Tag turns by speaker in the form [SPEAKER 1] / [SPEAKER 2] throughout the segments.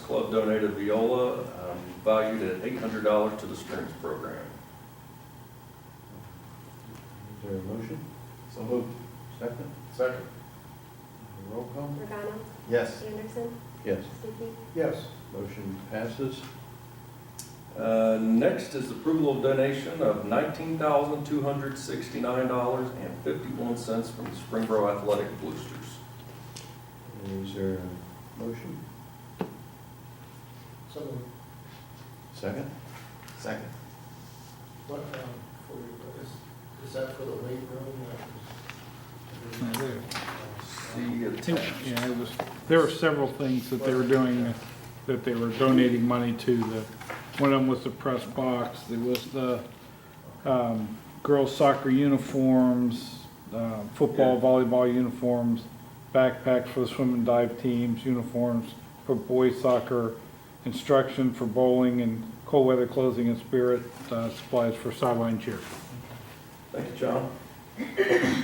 [SPEAKER 1] Club donated viola, um, valued at eight hundred dollars to the strings program.
[SPEAKER 2] Is there a motion? So moved. Second?
[SPEAKER 3] Second.
[SPEAKER 2] Roll call?
[SPEAKER 4] Regano,
[SPEAKER 2] Yes.
[SPEAKER 4] Anderson,
[SPEAKER 2] Yes.
[SPEAKER 4] Stuckey,
[SPEAKER 3] Yes.
[SPEAKER 2] Motion passes.
[SPEAKER 1] Uh, Next is approval of donation of nineteen thousand two hundred sixty-nine dollars and fifty-one cents from the Springboro Athletic Boosters.
[SPEAKER 2] Is there a motion?
[SPEAKER 3] So,
[SPEAKER 2] Second? Second.
[SPEAKER 3] what, um, for, is, is that for the weight room?
[SPEAKER 5] Yeah,
[SPEAKER 3] that was-
[SPEAKER 5] there-
[SPEAKER 1] See attached.
[SPEAKER 5] yeah, it was, there were several things that they were doing, that they were donating money to. The One of them was the press box, there was the um, girls soccer uniforms, uh, football,
[SPEAKER 1] Yeah.
[SPEAKER 5] volleyball uniforms, backpacks for the swim and dive teams, uniforms for boys soccer, instruction for bowling and cold weather clothing and spirit uh, supplies for sideline cheer.
[SPEAKER 1] Thank you, John.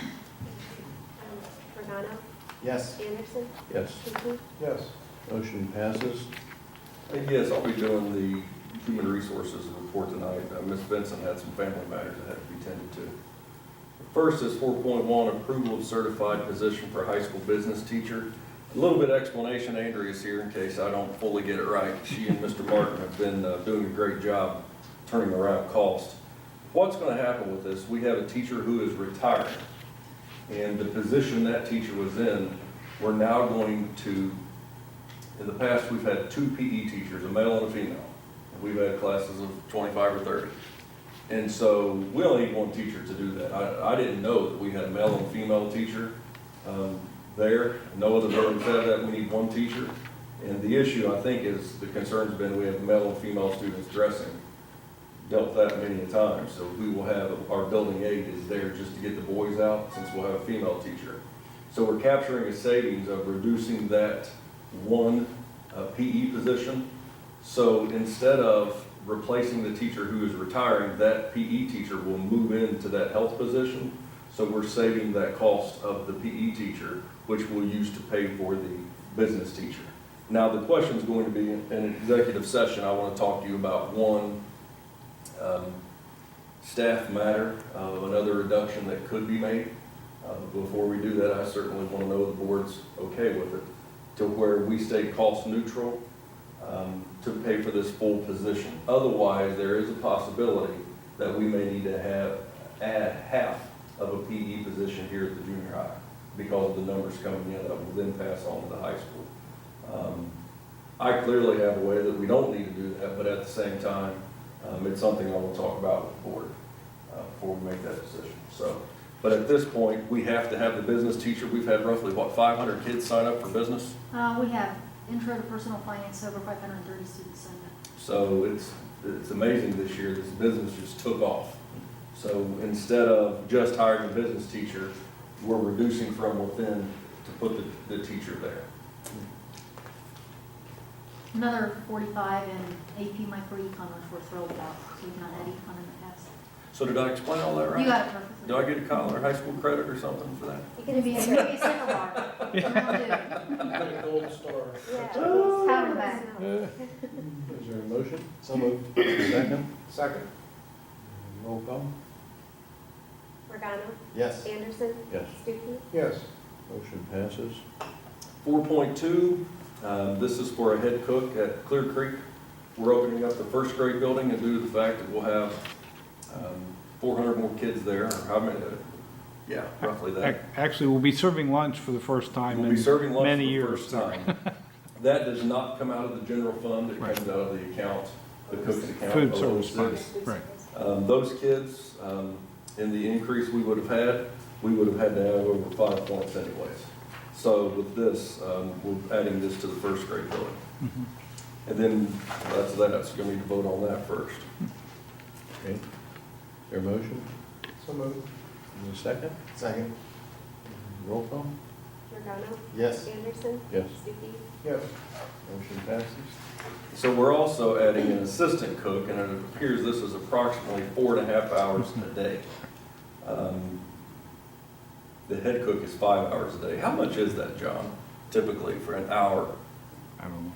[SPEAKER 4] um, Regano,
[SPEAKER 2] Yes.
[SPEAKER 4] Anderson,
[SPEAKER 2] Yes.
[SPEAKER 4] Stuckey,
[SPEAKER 3] Yes.
[SPEAKER 2] Motion passes.
[SPEAKER 1] Uh, Yes, I'll be doing the human resources report tonight. Uh, Ms. Benson had some family matters that had to be tended to. First is four point one, approval of certified position for high school business teacher. A little bit of explanation, Andrea's here in case I don't fully get it right. She and Mr. Martin have been uh, doing a great job turning around cost. What's gonna happen with this, we have a teacher who is retiring. And the position that teacher was in, we're now going to in the past, we've had two PE teachers, a male and a female. We've had classes of twenty-five or thirty. And so we only need one teacher to do that. I, I didn't know that we had a male and female teacher, um, there. No other building said that, we need one teacher. And the issue, I think, is the concern's been we have male and female students dressing. Dealt with that many a time, so we will have, our building aide is there just to get the boys out, since we'll have a female teacher. So we're capturing a savings of reducing that one uh, PE position. So instead of replacing the teacher who is retiring, that PE teacher will move into that health position. So we're saving that cost of the PE teacher, which we'll use to pay for the business teacher. Now, the question's going to be in an executive session, I want to talk to you about one, um, staff matter of another reduction that could be made. Uh, but Before we do that, I certainly want to know the board's okay with it, to where we stay cost neutral um, to pay for this full position. Otherwise, there is a possibility that we may need to have, add half of a PE position here at the junior high because of the numbers coming in that will then pass on to the high school. Um, I clearly have a way that we don't need to do that, but at the same time, um, it's something I will talk about with the board uh, before we make that decision. So, but at this point, we have to have the business teacher. We've had roughly, what, 500 kids sign up for business?
[SPEAKER 6] Uh, we have intro to personal finance, over five hundred and thirty students signed up.
[SPEAKER 1] So it's, it's amazing this year, this business just took off. So instead of just hiring a business teacher, we're reducing from within to put the, the teacher there.
[SPEAKER 6] Another forty-five in AP microecon, which we're thrilled about, so we've not had econ in the past.
[SPEAKER 1] So did I explain all that right?
[SPEAKER 6] You got it
[SPEAKER 1] Do I
[SPEAKER 6] perfectly.
[SPEAKER 1] get a college or high school credit or something for that?
[SPEAKER 6] It's gonna be, it's gonna be a seminar. We'll do
[SPEAKER 3] You got a gold star.
[SPEAKER 4] yeah.
[SPEAKER 6] Have him back.
[SPEAKER 2] Is there a motion? So moved. Second?
[SPEAKER 3] Second.
[SPEAKER 2] Roll call?
[SPEAKER 4] Regano,
[SPEAKER 2] Yes.
[SPEAKER 4] Anderson,
[SPEAKER 2] Yes.
[SPEAKER 4] Stuckey,
[SPEAKER 3] Yes.
[SPEAKER 2] Motion passes.
[SPEAKER 1] Four point two, um, this is for a head cook at Clear Creek. We're opening up the first grade building and due to the fact that we'll have um, four hundred more kids there, or how many, uh, yeah, roughly that.
[SPEAKER 5] Ac- Actually, we'll be serving lunch for the first time
[SPEAKER 1] We'll
[SPEAKER 5] in
[SPEAKER 1] be serving lunch
[SPEAKER 5] many
[SPEAKER 1] for the
[SPEAKER 5] years.
[SPEAKER 1] first time. That does not come out of the general fund, it
[SPEAKER 5] Right.
[SPEAKER 1] comes out of the account, the cook's account.
[SPEAKER 5] Food
[SPEAKER 1] of
[SPEAKER 5] service
[SPEAKER 1] those
[SPEAKER 5] fund.
[SPEAKER 1] six.
[SPEAKER 5] Right.
[SPEAKER 1] Um, those kids, um, in the increase we would have had, we would have had to have over five points anyways. So with this, um, we're adding this to the first grade building.
[SPEAKER 5] Mhm.
[SPEAKER 1] And then that's that, so you're gonna need to vote on that first.
[SPEAKER 2] Okay. Is there a motion?
[SPEAKER 3] So moved.
[SPEAKER 2] Is there a second? Second. Roll call?
[SPEAKER 4] Regano,
[SPEAKER 2] Yes.
[SPEAKER 4] Anderson,
[SPEAKER 2] Yes.
[SPEAKER 4] Stuckey,
[SPEAKER 3] Yes.
[SPEAKER 2] Motion passes.
[SPEAKER 1] So we're also adding an assistant cook, and it appears this is approximately four and a half hours a day. Um, The head cook is five hours a day. How much is that, John, typically for an hour?
[SPEAKER 5] I don't know.